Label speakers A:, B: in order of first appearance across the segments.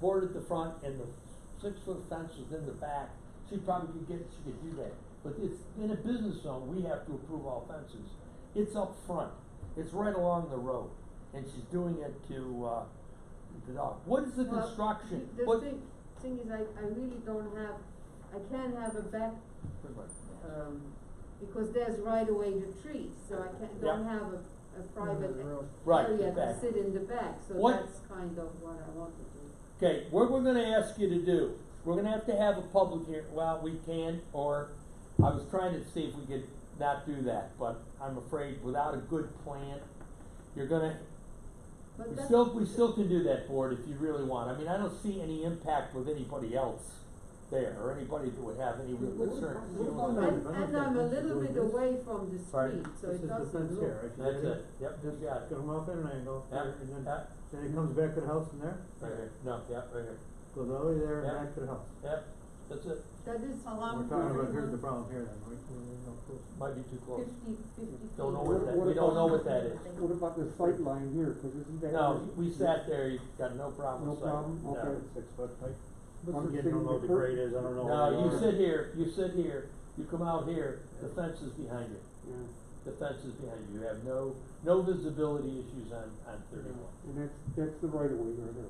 A: board at the front and the six-foot fence is in the back, she probably could get, she could do that. But it's, in a business zone, we have to approve all fences. It's up front, it's right along the road, and she's doing it to, uh, the dog. What is the
B: Well,
A: construction?
B: The
A: What-
B: thing, thing is, I, I really don't have, I can't have a back,
A: uh,
B: um, because there's right away the trees, so I can't, don't
A: Yeah.
B: have a, a private
C: the road.
A: Right, the
B: area to
A: back.
B: sit in the back, so
A: What-
B: that's kind of what I want to do.
A: Okay, what we're gonna ask you to do, we're gonna have to have a public hear, well, we can, or, I was trying to see if we could not do that, but I'm afraid without a good plan, you're gonna,
B: But
A: we
B: that's-
A: still, we still can do that, board, if you really want, I mean, I don't see any impact with anybody else there, or anybody that would have any real
C: What-
A: concern.
C: what about
B: And,
C: No, I don't
B: and I'm a
C: think that's
B: little
C: what
B: bit
C: it is.
B: away from the
A: Pardon?
B: street, so it
C: This is the fence
B: doesn't
C: here,
B: look.
C: if you
A: That's
C: ready,
A: it, yep,
C: Just
A: you got it,
C: get him off at an angle,
A: Yeah,
C: there, and then,
A: yeah,
C: then he comes back to the house from there,
A: right here, no, yeah, right here,
C: goes all the way there and
A: Yeah.
C: back to the house.
A: yep, that's it,
B: That is
C: We're talking about, here's the problem here then, we, we need no proof.
A: might be too close.
B: fifty, fifty feet.
A: Don't know what that, we don't know what that is.
D: What about the sight line here, cause isn't that?
A: No, we sat there, you got no problem
D: No
A: with sight,
D: problem,
A: no.
D: okay.
C: Six foot, height.
D: Mr.
C: I'm getting, I
D: King,
C: don't know what the
D: the cur-
C: grade is, I don't know. what
A: No,
C: they
A: you
C: are.
A: sit here, you sit here, you come out here, the fence is behind you,
D: Yeah,
A: the fence is behind you, you have no, no visibility issues on, on thirty-one.
D: and that's, that's the right of way right there.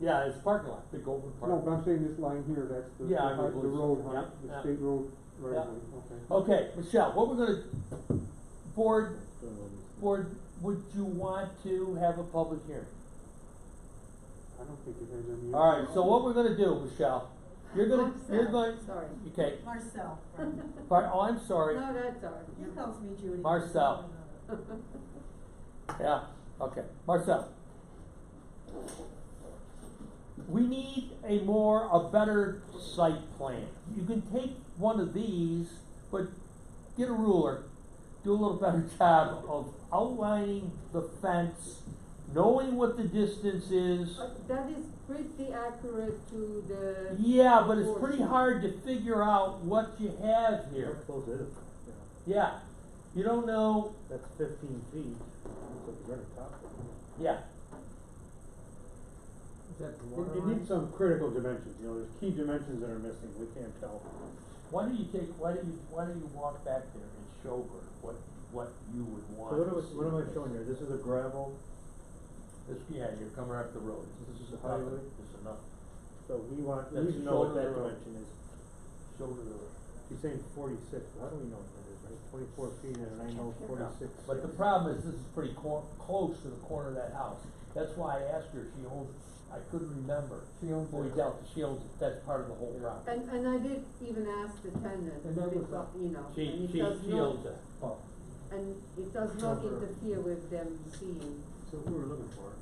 A: Yeah, it's parking lot, big open
D: No,
A: parking
D: but I'm
A: lot.
D: saying this line here, that's the, the
A: Yeah, I
D: hi- the
A: believe so.
D: road, hi-
A: Yeah, yeah.
D: the state road right
A: Yeah.
D: of way, okay.
A: Okay, Michelle, what we're gonna, board, board, would you want to have a public hearing?
D: I don't think it has any.
A: Alright, so what we're gonna do, Michelle, you're gonna, you're going,
B: Sorry.
A: okay,
E: Marcel,
A: par- oh, I'm sorry,
B: No, that's all right.
E: he calls me Judy.
A: Marcel. Yeah, okay, Marcel. We need a more, a better site plan. You can take one of these, but get a ruler, do a little better job of outlining the fence, knowing what the distance is.
B: Uh, That is pretty accurate to the.
A: Yeah, but it's pretty hard to figure out what you have
C: How
A: here.
C: close is it? Yeah.
A: Yeah, you don't know,
C: That's fifteen feet, looks like you're at top.
A: yeah,
C: Is that the water It needs some critical dimensions, you know, there's key dimensions that are missing, we can't tell.
A: Why do you take, why do you, why do you walk back there and show her what, what you would
C: So
A: want?
C: what am
A: to
C: I,
A: see
C: what am I
A: next?
C: showing here, this is a gravel,
A: This, yeah, you're coming up the road, this is
C: This is the
A: nothing,
C: highway?
A: this is nothing,
C: so we want, we
A: That's
C: need to know what
A: shoulder
C: that
A: road.
C: dimension is.
A: shoulder to the road.
C: She's saying forty-six, how do we know what that is, right, twenty-four feet and I know forty-six.
A: But the problem is, this is pretty cor- close to the corner of that house, that's why I asked her, if she owns, I couldn't remember.
D: She owns
A: But we
D: it.
A: doubt that she owns it, that's part of the whole problem.
B: And, and I did even ask the tenant,
D: And that was
B: because, you know,
A: She,
B: and it
A: she,
B: does
A: she
B: not,
A: owns it.
C: Oh,
B: and it does not
C: Cover.
B: interfere with them seeing.
C: so what we're looking for,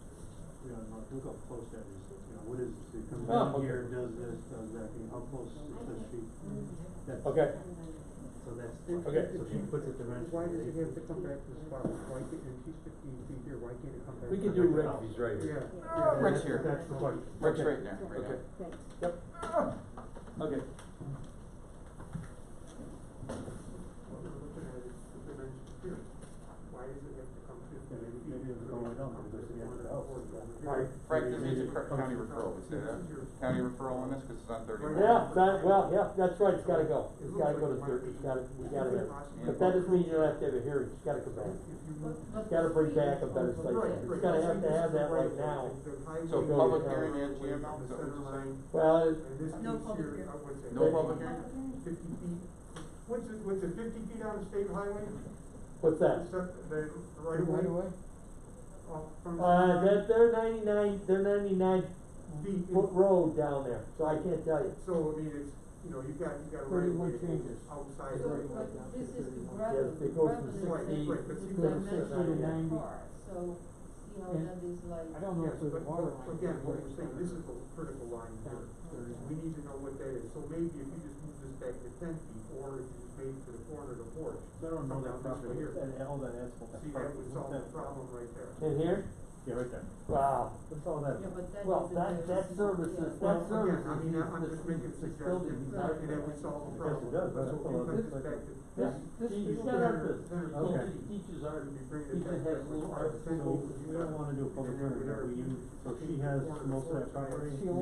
C: you know, not- look how close that is, you know, what is, it comes
A: Oh,
C: down
A: okay.
C: here, does this, does that, you know, how close is this feet? That's-
A: Okay.
C: So that's,
D: And
A: Okay.
C: so
D: if
C: she puts it dimension.
D: Why does it have to come back to the spot, why can't, and she's fifteen feet here, why can't it come back?
A: We
D: to
A: can do
D: the
A: Rick,
D: house?
F: He's right
D: Yeah.
F: here.
D: yeah,
F: Rick's
D: that's-
F: here.
D: That's the question.
F: Rick's
D: Okay.
F: right there, right now.
B: Thanks.
A: okay,
D: What we're looking at is the dimension here. Why does it have to come fifteen
C: Maybe-
D: feet?
C: maybe it's going down, because we have the house.
D: Right.
F: Frank, this needs a cr- county referral, we say that, county referral on this, cause it's on thirty-one.
A: yeah, that, well, yeah, that's right, it's gotta go, it's gotta go to thirty, it's gotta, we gotta have, it. but that doesn't mean you don't have to have a hearing, it's gotta come back. Gotta bring back a better site plan, it's gotta have to have that right now.
F: So public hearing and GML, is that what you're saying?
A: Well, it-
E: No public hearing.
F: No public hearing?
D: Fifty feet, what's it, what's it, fifty feet on the state highway?
A: what's that?
D: Except the right of way? Off from.
A: Uh, that, they're ninety-nine, they're ninety-nine
D: Feet.
A: foot road down there, so I can't tell you.
D: So, I mean, it's, you know, you've got, you've got a right of way
C: Thirty-one changes.
D: outside.
B: So, but this is the
A: Yes,
B: gravel,
A: they go
B: gravel
A: from
B: is
D: six
B: like
A: sixty.
B: the
D: feet to
B: dimension
A: sixty to
B: of the
A: ninety.
B: car, so see how
C: And
B: that is like.
C: don't
D: Yes, but, but again, what we're saying, this is the critical line here, is we need to know what that is, so maybe if you just move this back to ten feet, or if you just made it to the corner of the porch.
C: I don't know
D: come
C: that
D: down this way
C: property,
D: here.
C: and all that asphalt.
D: See, that would solve the problem right there.
A: In here?
C: Yeah, right there.
A: Wow,
C: What's all that?
B: Yeah, but that
A: well,
B: is a
A: that, that
B: dimension,
A: services,
B: yeah.
A: that
D: Well, again,
A: services.
D: I mean, I- I'm
A: this-
D: just making
A: this building,
D: suggestions,
A: not-
D: and that would solve
C: Yes,
D: the
C: it
D: problem.
C: does, but-
D: So if you put this back to.
A: Yeah,
D: this-
A: she,
D: this
A: she's got our
D: is better-
A: business,
D: better
C: Okay.
A: she teaches
D: Or
A: our,
D: if you bring
A: You
D: it
A: can
D: back
A: have
D: that way,
A: little
D: or
A: arts
D: ten
C: So
D: feet,
C: we don't wanna do a public
D: and then
C: hearing, we
D: whatever
C: use, so
D: fifteen
C: she has
D: corner of the
C: most of that
D: porch,
C: property.
D: yeah.